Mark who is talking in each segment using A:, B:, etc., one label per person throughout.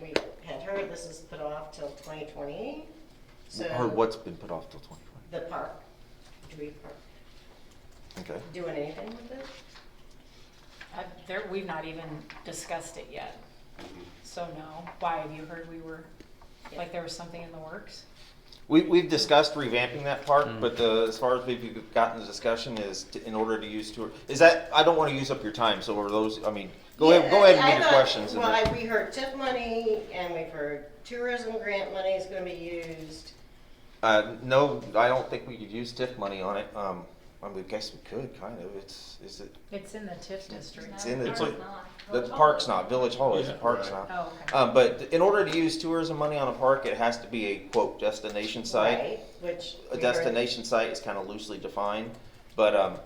A: we had heard this is put off till twenty twenty, so.
B: Heard what's been put off till twenty
A: The park, Dewey Park,
B: twenty? Okay.
A: doing anything with it?
C: Uh, There, we've not even discussed it yet, so no. Why, have you heard we were, like there was something in the works?
B: We, we've discussed revamping that park, but the, as far as we've gotten the discussion is to, in order to use tour, is that, I don't wanna use up your time, so are those, I mean, go ahead, go
A: Yeah,
B: ahead and
A: I- I
B: do your
A: thought-
B: questions. and
A: Well,
B: then-
A: I- we heard TIP money and we've heard tourism grant money is gonna be used.
B: Uh, no, I don't think we could use TIF money on it, um, I mean, I guess we could, kind of, it's, is it,
C: It's in the TIF district.
B: It's in the
D: Park's
B: TIF.
D: not.
B: the park's not, Village Hall is, the
E: Yeah,
B: park's
E: right.
B: not.
C: Oh, okay.
B: Um, but in order to use tourism money on a park, it has to be a quote destination site.
A: right? Which. we
B: a
A: heard-
B: destination site is kind of loosely defined, but um,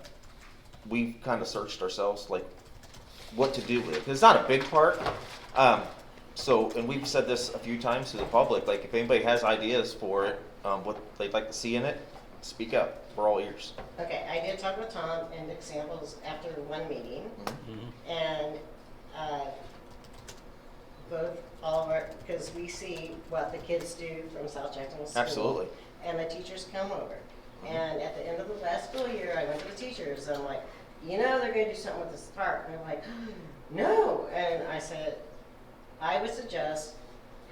B: we've kind of searched ourselves like what to do with it. 'Cause It's not a big park, um, so and we've said this a few times to the public. Like if anybody has ideas for it, um, what they'd like to see in it, speak up. We're all ears.
A: Okay, I did talk with Tom and Nick Samples after one meeting.
B: Mm-hmm.
E: Mhm.
A: And, uh, both, all of our, because we see what the kids do from South Jackson School.
B: Absolutely.
A: And the teachers come over. And at the end of the last school year, I went to the teachers, and I'm like, you know, they're gonna do something with this park, and they're like, no, and I said, I would suggest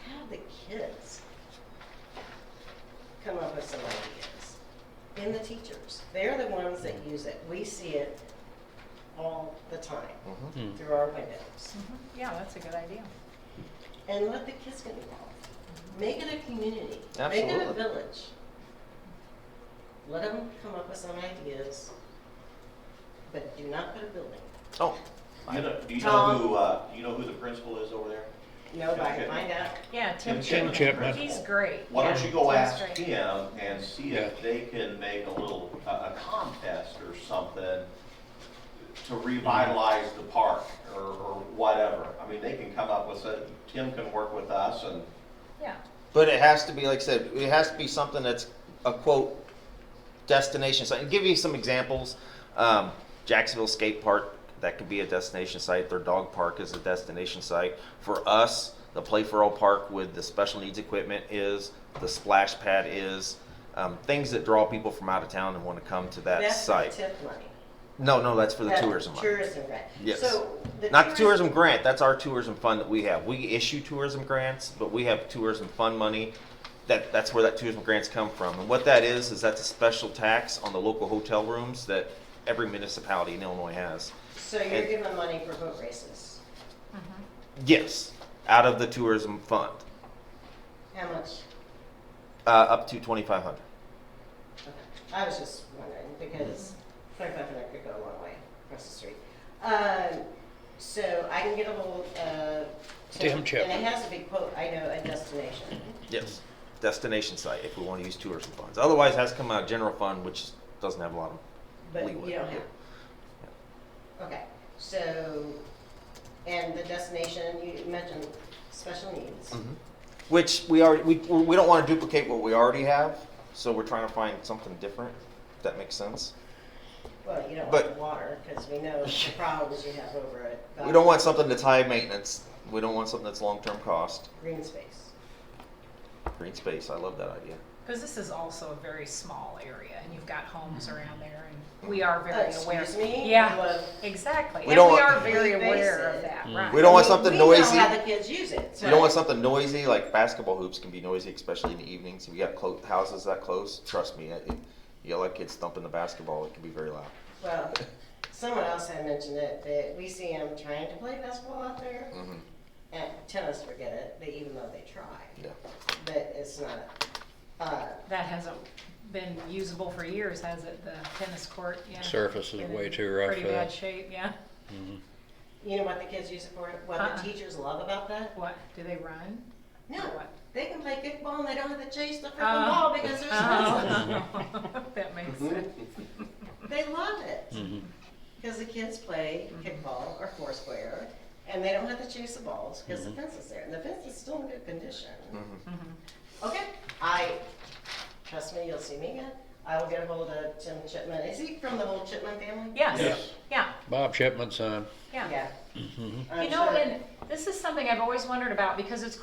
A: have the kids come up with some ideas. And the teachers, they're the ones that use it, we see it all the time
B: Mhm.
E: Mm.
A: through our windows.
C: Mhm. Yeah, that's a good idea.
A: And let the kids get involved. Make it a community. Make it a
B: Absolutely.
A: village. Let them come up with some ideas, but do not put a building.
B: Oh,
F: You know, do you know
A: Tom?
F: who, uh, do you know who the principal is over there?
A: Nobody
F: Okay.
A: find out.
C: Yeah, Tim
F: Chipman.
C: Chipman,
F: Chipman.
C: he's great.
F: Why don't
C: yeah.
F: you go
C: Tim's
F: ask
C: great.
F: him and see if they can make a little, a, a contest or something to revitalize the park or, or whatever. I mean, they can come up with, a- Tim can work with us and,
C: Yeah,
B: but it has to be like I said. It has to be something that's a quote destination site. And give you some examples. Um, Jacksonville Skate Park, that could be a destination site. Their dog park is a destination site. For us, the Play for All Park with the special needs equipment is, the splash pad is, um, things that draw people from out of town and want to come to that
A: That's for
B: site.
A: tip money.
B: no, no, that's for the
A: That
B: tourism. money.
A: Tourism grant.
B: Yes.
A: So the.
B: Not the tourism grant, that's our tourism fund that we have. We issue tourism grants, but we have tourism fund money. That, that's where that tourism grants come from. And what that is, is that's a special tax on the local hotel rooms that every municipality in Illinois has.
A: So you're
B: and-
A: giving money for boat races.
B: Yes, out of the tourism fund,
A: How much?
B: uh, up to twenty-five hundred.
A: Okay. I was just wondering because twenty-five hundred could go a long way across the street. Um, so I can get a hold of.
E: Tim Chapman.
A: And it has to be quote, I know, a destination.
B: Yes, destination site if we want to use tourism funds. Otherwise, it has to come out of general fund, which doesn't have a lot of
A: But
B: leeway.
A: you don't have. Okay, so, and the destination, you mentioned special needs.
B: Mhm. Which we already, we, we don't want to duplicate what we already have, so we're trying to find something different, if that makes sense.
A: Well, you don't
B: But-
A: want water, because we know the problems you have over it.
B: We don't want something that's high maintenance, we don't want something that's long-term cost.
A: Green space.
B: Green space, I love that idea.
C: because this is also a very small area and you've got homes around there and we are very
A: Uh,
C: aware.
A: excuse me?
C: Yeah,
A: Well,
C: exactly. And
B: We
C: we
B: don't
C: are
B: want-
C: very
A: We base
C: aware of
A: it-
C: that,
E: Mm.
C: right.
B: We don't want
A: I mean,
B: something noisy.
A: We know how the kids use it.
B: You don't want something noisy, like basketball hoops can be noisy, especially in the evenings, if you got clo- houses that close, trust me, it- it- you got like kids thumping the basketball, it can be very loud.
A: Well, someone else had mentioned it, that we see them trying to play basketball out there,
B: Mhm,
A: and tennis, forget it, but even though they try,
B: yeah.
A: but it's not, uh,
C: That hasn't been usable for years, has it? The tennis court, yeah.
E: Surface is
C: Been
E: way
C: in
E: too rough
C: Pretty
E: for that.
C: bad shape, yeah.
E: Mhm.
A: you know what the kids use it for, what
C: Uh-uh.
A: the teachers love about that?
C: What, do they run?
A: No,
C: Or what?
A: they can play kickball and they don't have to chase the freaking
C: Oh.
A: ball because they're responsible.
C: Oh, That makes sense.
A: They love it
E: Mhm.
A: because the kids play
C: Mm-hmm.
A: kickball or four square and they don't have to chase the balls because the fence is there and the fence is still in good condition.
B: Mm-hmm.
C: Mm-hmm.
A: Okay, I, trust me, you'll see me again. I will get a hold of Tim Chipman. Is he from the whole Chipman family?
C: Yes,
E: Yes.
C: yeah,
E: Bob Shipman's son.
C: yeah.
A: Yeah. I'm
C: You know,
A: sure-
C: and this is something I've always wondered about because it's